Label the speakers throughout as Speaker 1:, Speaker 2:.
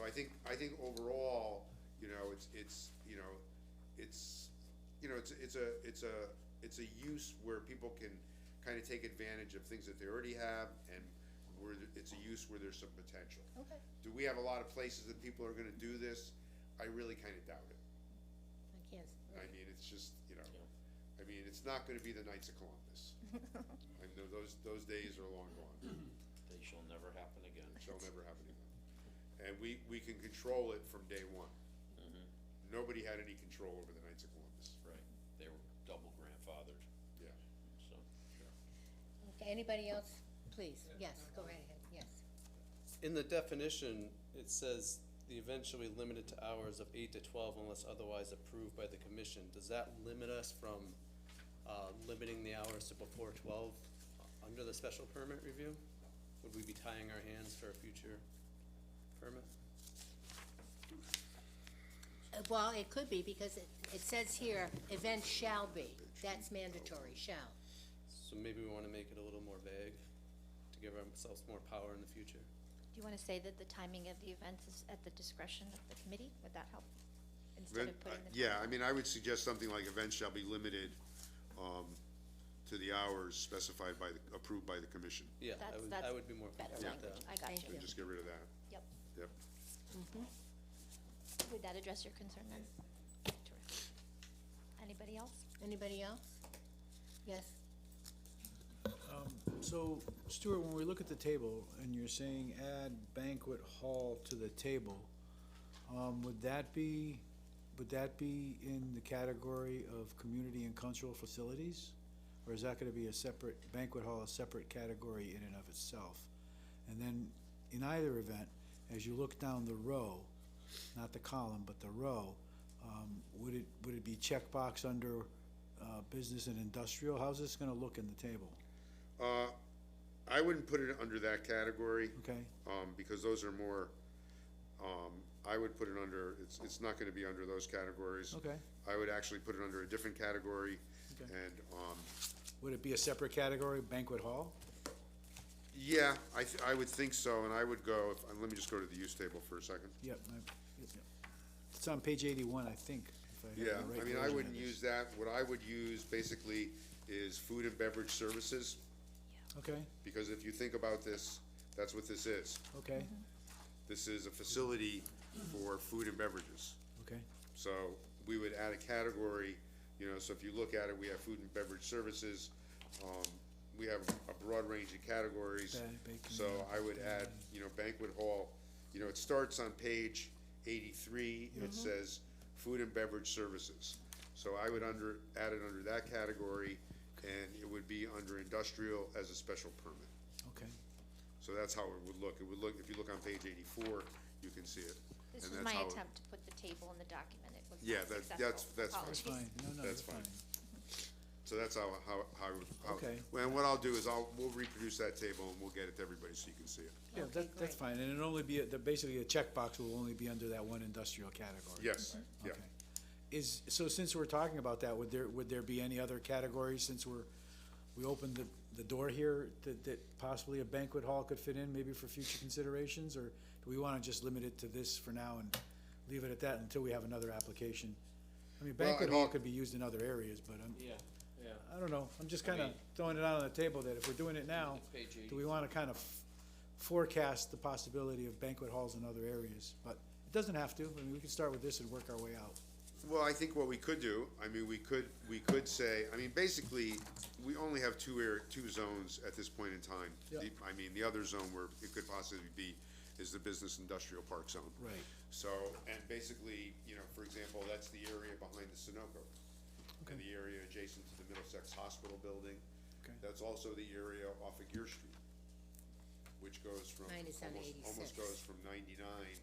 Speaker 1: I think, I think overall, you know, it's, it's, you know, it's, you know, it's, it's a, it's a, it's a use where people can kind of take advantage of things that they already have and where th- it's a use where there's some potential.
Speaker 2: Okay,
Speaker 1: Do we have a lot of places that people are gonna do this? I really kind of doubt it.
Speaker 2: I can't. s-
Speaker 1: I mean, it's just, you know, I mean, it's not gonna be the Knights of Columbus. I know those, those days are long gone.
Speaker 3: They shall never happen again.
Speaker 1: It shall never happen again. And we, we can control it from day one.
Speaker 4: Mm-hmm.
Speaker 3: Mhm.
Speaker 1: Nobody had any control over the Knights of Columbus.
Speaker 3: Right, they were double grandfathered,
Speaker 1: Yeah.
Speaker 3: so.
Speaker 2: Okay, anybody else? Please, yes, go right ahead, yes.
Speaker 5: In the definition, it says the event shall be limited to hours of eight to twelve unless otherwise approved by the commission. Does that limit us from, uh, limiting the hours to before twelve under the special permit review? Would we be tying our hands for a future permit?
Speaker 2: Uh, Well, it could be, because it, it says here, event shall be, that's mandatory, shall.
Speaker 5: So maybe we wanna make it a little more vague to give ourselves more power in the future.
Speaker 6: Do you want to say that the timing of the events is at the discretion of the committee? Would that help? Instead of putting the.
Speaker 1: uh, Yeah, I mean, I would suggest something like events shall be limited, um, to the hours specified by the, approved by the commission.
Speaker 5: Yeah, I
Speaker 6: That's,
Speaker 5: would,
Speaker 6: that's
Speaker 5: I would be more
Speaker 6: better
Speaker 5: comfortable with that.
Speaker 6: language. I got
Speaker 2: Thank
Speaker 6: you.
Speaker 2: you.
Speaker 1: Just get rid of that.
Speaker 6: Yep.
Speaker 1: Yep.
Speaker 6: Would that address your concern then? Terrific. Anybody else?
Speaker 2: Anybody else? Yes,
Speaker 4: So Stuart, when we look at the table and you're saying add banquet hall to the table, um, would that be, would that be in the category of community and cultural facilities? Or is that gonna be a separate, banquet hall, a separate category in and of itself? And then, in either event, as you look down the row, not the column, but the row, um, would it, would it be checkbox under, uh, business and industrial? How's this gonna look in the table?
Speaker 1: Uh, I wouldn't put it under that category,
Speaker 4: Okay?
Speaker 1: um, because those are more, um, I would put it under, it's, it's not gonna be under those categories.
Speaker 4: Okay.
Speaker 1: I would actually put it under a different category,
Speaker 4: Okay.
Speaker 1: and, um,
Speaker 4: Would it be a separate category, banquet hall?
Speaker 1: yeah, I, th- I would think so, and I would go, if- uh, let me just go to the use table for a second.
Speaker 4: Yep. I- yep. It's on page eighty-one, I think, if I have the
Speaker 1: Yeah,
Speaker 4: right
Speaker 1: I mean, I
Speaker 4: version
Speaker 1: wouldn't
Speaker 4: of this.
Speaker 1: use that, what I would use basically is food and beverage services,
Speaker 4: Okay,
Speaker 1: because if you think about this, that's what this is.
Speaker 4: okay,
Speaker 1: This is a facility for food and beverages.
Speaker 4: okay,
Speaker 1: So we would add a category, you know, so if you look at it, we have food and beverage services. Um, we have a broad range of categories.
Speaker 4: Ba- baking,
Speaker 1: So I would add, you know, banquet hall, you know, it starts on page eighty-three, it says food and beverage services. So I would under, add it under that category and it would be under industrial as a special permit.
Speaker 4: okay.
Speaker 1: So that's how it would look. It would look, if you look on page eighty-four, you can see it.
Speaker 6: This
Speaker 1: And
Speaker 6: was
Speaker 1: that's
Speaker 6: my
Speaker 1: how it-
Speaker 6: attempt to put the table in the document. It was
Speaker 1: Yeah,
Speaker 6: not
Speaker 1: that-
Speaker 6: successful.
Speaker 1: that's- that's fine.
Speaker 4: That's
Speaker 6: Apologies.
Speaker 4: fine, no, no,
Speaker 1: That's
Speaker 4: that's
Speaker 1: fine.
Speaker 4: fine.
Speaker 1: So that's how, how, how, how.
Speaker 4: Okay.
Speaker 1: And what I'll do is I'll, we'll reproduce that table and we'll get it to everybody so you can see it.
Speaker 4: Yeah,
Speaker 2: Okay,
Speaker 4: that, that's
Speaker 2: great.
Speaker 4: fine, and it'll only be, a- the- basically, a checkbox will only be under that one industrial category.
Speaker 1: Yes, yeah.
Speaker 4: Okay. Is, so since we're talking about that, would there, would there be any other categories, since we're, we opened the, the door here, that, that possibly a banquet hall could fit in, maybe for future considerations, or do we wanna just limit it to this for now and leave it at that until we have another application? I mean,
Speaker 1: Well, I
Speaker 4: banquet hall
Speaker 1: mean-
Speaker 4: could be used in other areas, but um, I'm,
Speaker 3: Yeah, yeah.
Speaker 4: I don't know, I'm just kinda throwing it out on the table that if we're doing it now,
Speaker 3: Page
Speaker 4: do we wanna kind of forecast the possibility of banquet halls in other areas? But it doesn't have to, I mean, we can start with this and work our way out.
Speaker 1: Well, I think what we could do, I mean, we could, we could say, I mean, basically, we only have two air, two zones at this point in time.
Speaker 4: Yeah.
Speaker 1: The- I mean, the other zone where it could possibly be is the business industrial park zone.
Speaker 4: Right.
Speaker 1: So, and basically, you know, for example, that's the area behind the Sunoco. And
Speaker 4: Okay.
Speaker 1: the area adjacent to the Middlesex Hospital building.
Speaker 4: Okay.
Speaker 1: That's also the area off of Gear Street, which goes from.
Speaker 2: Mine is on
Speaker 1: almost-
Speaker 2: 86.
Speaker 1: Almost goes from ninety-nine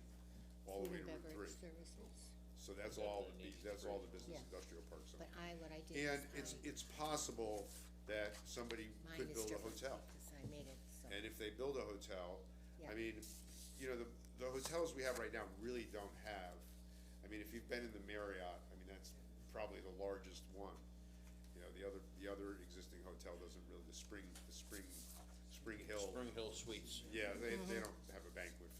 Speaker 1: all the
Speaker 2: food
Speaker 1: way
Speaker 2: and
Speaker 1: to Route
Speaker 2: beverage
Speaker 1: three.
Speaker 2: services,
Speaker 1: So that's all, the bu-
Speaker 3: Definitely
Speaker 1: that's all the
Speaker 2: Yeah.
Speaker 1: business industrial park zone.
Speaker 2: but I, what I did is
Speaker 1: And it's,
Speaker 2: I-
Speaker 1: it's possible that somebody
Speaker 2: mine
Speaker 1: could
Speaker 2: is
Speaker 1: build a
Speaker 2: different
Speaker 1: hotel.
Speaker 2: Because I made it, so,
Speaker 1: And if they build a hotel,
Speaker 2: Yeah.
Speaker 1: I mean, you know, the, the hotels we have right now really don't have, I mean, if you've been in the Marriott, I mean, that's probably the largest one. You know, the other, the other existing hotel doesn't really, the Spring, the Spring, Spring Hill,
Speaker 3: Spring Hill Suites.
Speaker 2: Mm-hmm.
Speaker 1: yeah, they, they don't have a banquet